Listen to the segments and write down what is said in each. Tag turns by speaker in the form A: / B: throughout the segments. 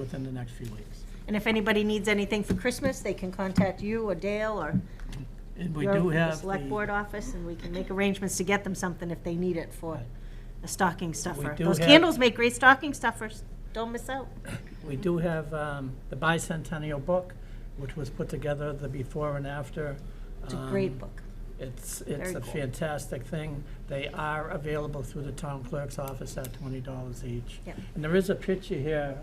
A: within the next few weeks.
B: And if anybody needs anything for Christmas, they can contact you or Dale or
A: And we
B: your-
A: do
B: the
A: have
B: select board
A: the,
B: office, and we can make arrangements to get them something if they need it for
A: Right.
B: a stocking stuffer.
A: do
B: Those
A: have-
B: candles make great stocking stuffers, don't miss out.
A: we do have um, the bicentennial book, which was put together the before and after.
B: It's a
A: um,
B: great book.
A: It's, it's
B: Very
A: a
B: cool.
A: fantastic thing. They are available through the town clerk's office at twenty dollars each.
B: Yep.
A: And there is a picture here,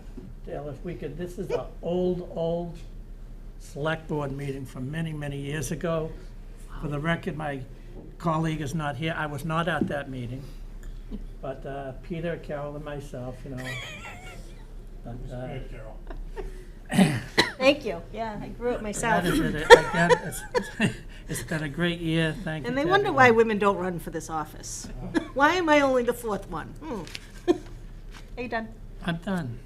A: Dale, if we could, this is an old, old select board meeting from many, many years ago. For the record, my colleague is not here. I was not at that meeting. But uh, Peter, Carol, and myself, you know. But, uh,
B: Thank you, yeah, I grew it myself.
A: that is it. Again, it's- It's been a great year, thank you.
B: And they
A: to
B: wonder
A: everyone.
B: why women don't run for this office.
A: Oh.
B: Why am I only the fourth one? Hmm. Are you done?
A: I'm done.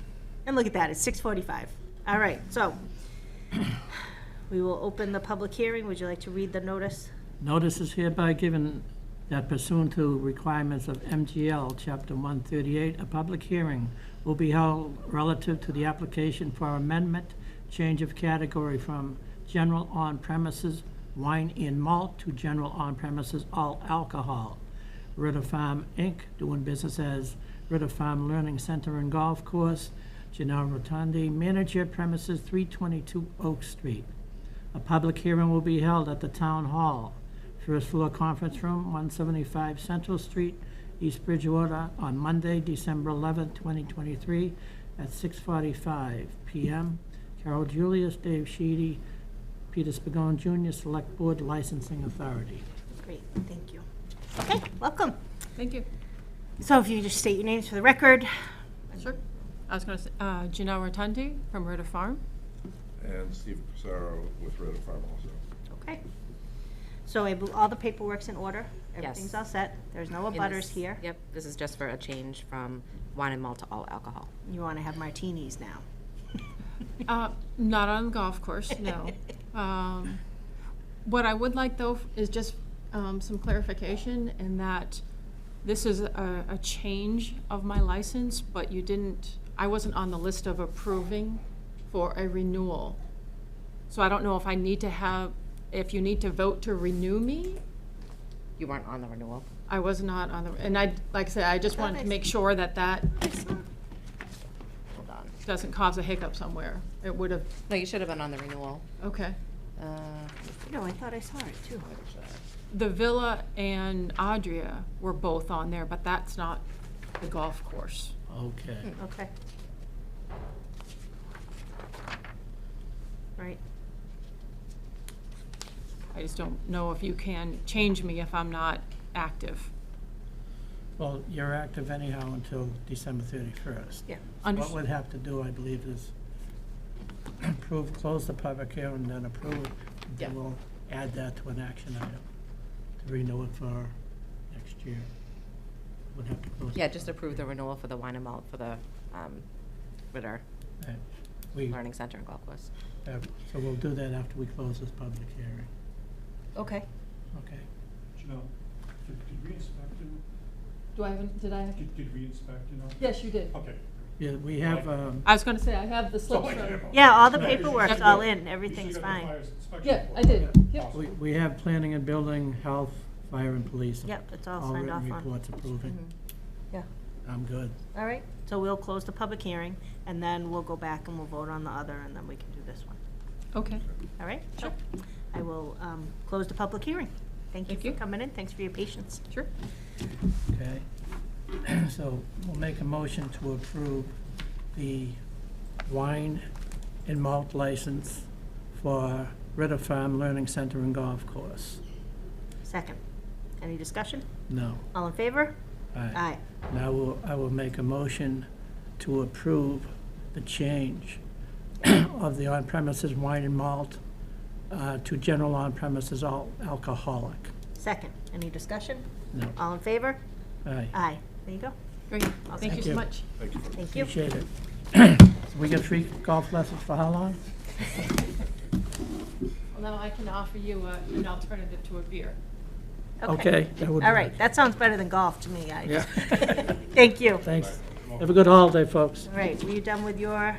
B: And look at that, it's six forty-five. All right, so we will open the public hearing. Would you like to read the notice?
A: Notice is hereby given that pursuant to requirements of MGL Chapter 138, a public hearing will be held relative to the application for amendment, change of category from general on-premises wine and malt to general on-premises all alcohol. Ritter Farm, Inc., doing business as Ritter Farm Learning Center and Golf Course, Gennaro Rotundi, manager premises 322 Oak Street. A public hearing will be held at the Town Hall, first floor conference room, 175 Central Street, East Bridgewater, on Monday, December 11, 2023, at 6:45 PM. Carol Julius, Dave Sheedy, Peter Spigot Jr., Select Board Licensing Authority.
B: Great, thank you. Okay, welcome.
C: Thank you.
B: So if you just state your names for the record.
C: Sure. I was going to say, uh, Gina Rotundi from Ritter Farm.
D: And Steve Pissarro with Rota Farm also.
B: Okay. So I bel- all the paperwork's in order? Everything's
E: Yes.
B: all set? There's no
E: in
B: abutters
E: this-
B: here?
E: Yep, this is just for a change from wine and malt to all alcohol.
B: You want to have martinis now?
C: Uh, Not on the golf course, no. Um, What I would like, though, is just um, some clarification in that this is a a change of my license, but you didn't, I wasn't on the list of approving for a renewal. So I don't know if I need to have, if you need to vote to renew me
E: You weren't on the renewal.
C: I was not on the, and I, like I said, I just wanted to make sure that that
E: Hold on.
C: doesn't cause a hiccup somewhere. It would have,
E: No, you should have been on the renewal.
C: okay.
E: Uh, let me see.
B: No, I thought I saw it too.
C: The Villa and Adria were both on there, but that's not the golf course.
A: Okay.
B: Okay. Right,
C: I just don't know if you can change me if I'm not active.
A: Well, you're active anyhow until December 31st.
B: yeah.
C: Under-
A: What we'd have to do, I believe, is approve, close the public hearing, and then approve. and Then
E: Yeah.
A: we'll add that to an action item, to renew it for next year. Would have to close.
E: Yeah, just approve the renewal for the wine and malt for the um, Ritter
A: Right. We,
E: Learning Center in Gulf Coast.
A: uh, so we'll do that after we close this public hearing,
B: Okay.
A: okay?
F: Janelle, did, did we inspect it?
C: Do I have, an- did I have?
F: Did, did we inspect it? now?
C: Yes, you did.
F: Okay.
A: Yeah, we have, um,
C: I was gonna say, I have the slip.
F: So I
C: from-
F: came up.
B: Yeah, all the
F: No, it's-
B: paperwork's
F: it's
B: all
F: good.
B: in,
F: You
B: everything's
F: still got the
B: fine.
F: fire inspection
C: Yeah, I
F: report.
C: did, yep.
A: we, we have planning and building, health, fire and police.
B: Yep, it's all signed off
A: All written
B: on. Mm-hmm.
A: reports approving.
B: Yeah.
A: I'm good.
B: All right, so we'll close the public hearing, and then we'll go back and we'll vote on the other, and then we can do this one.
C: Okay.
B: All right? Sure. I will um, close the public hearing. Thank you
C: Thank
B: for
C: you.
B: coming in, thanks for your patience.
C: Sure.
A: Okay, so we'll make a motion to approve the wine and malt license for Ritter Farm Learning Center and Golf Course.
B: Second, any discussion?
A: No.
B: All in favor?
A: Aye.
B: Aye.
A: Now, I will, I will make a motion to approve the change of the on-premises wine and malt uh, to general on-premises all alcoholic.
B: Second, any discussion?
A: No.
B: All in favor?
A: Aye.
B: Aye. There you go,
C: Great. Thank you
A: you.
C: so much.
D: Thank you for
B: thank you.
A: Appreciate it. So We get free golf lessons for how long?
C: Well, now I can offer you a- an alternative to a beer.
A: Okay, that would be
B: All right,
A: nice.
B: that sounds better than golf to me, I
A: Yeah.
B: Thank you.
A: Thanks. Have a good holiday, folks.
B: All right, were you done with your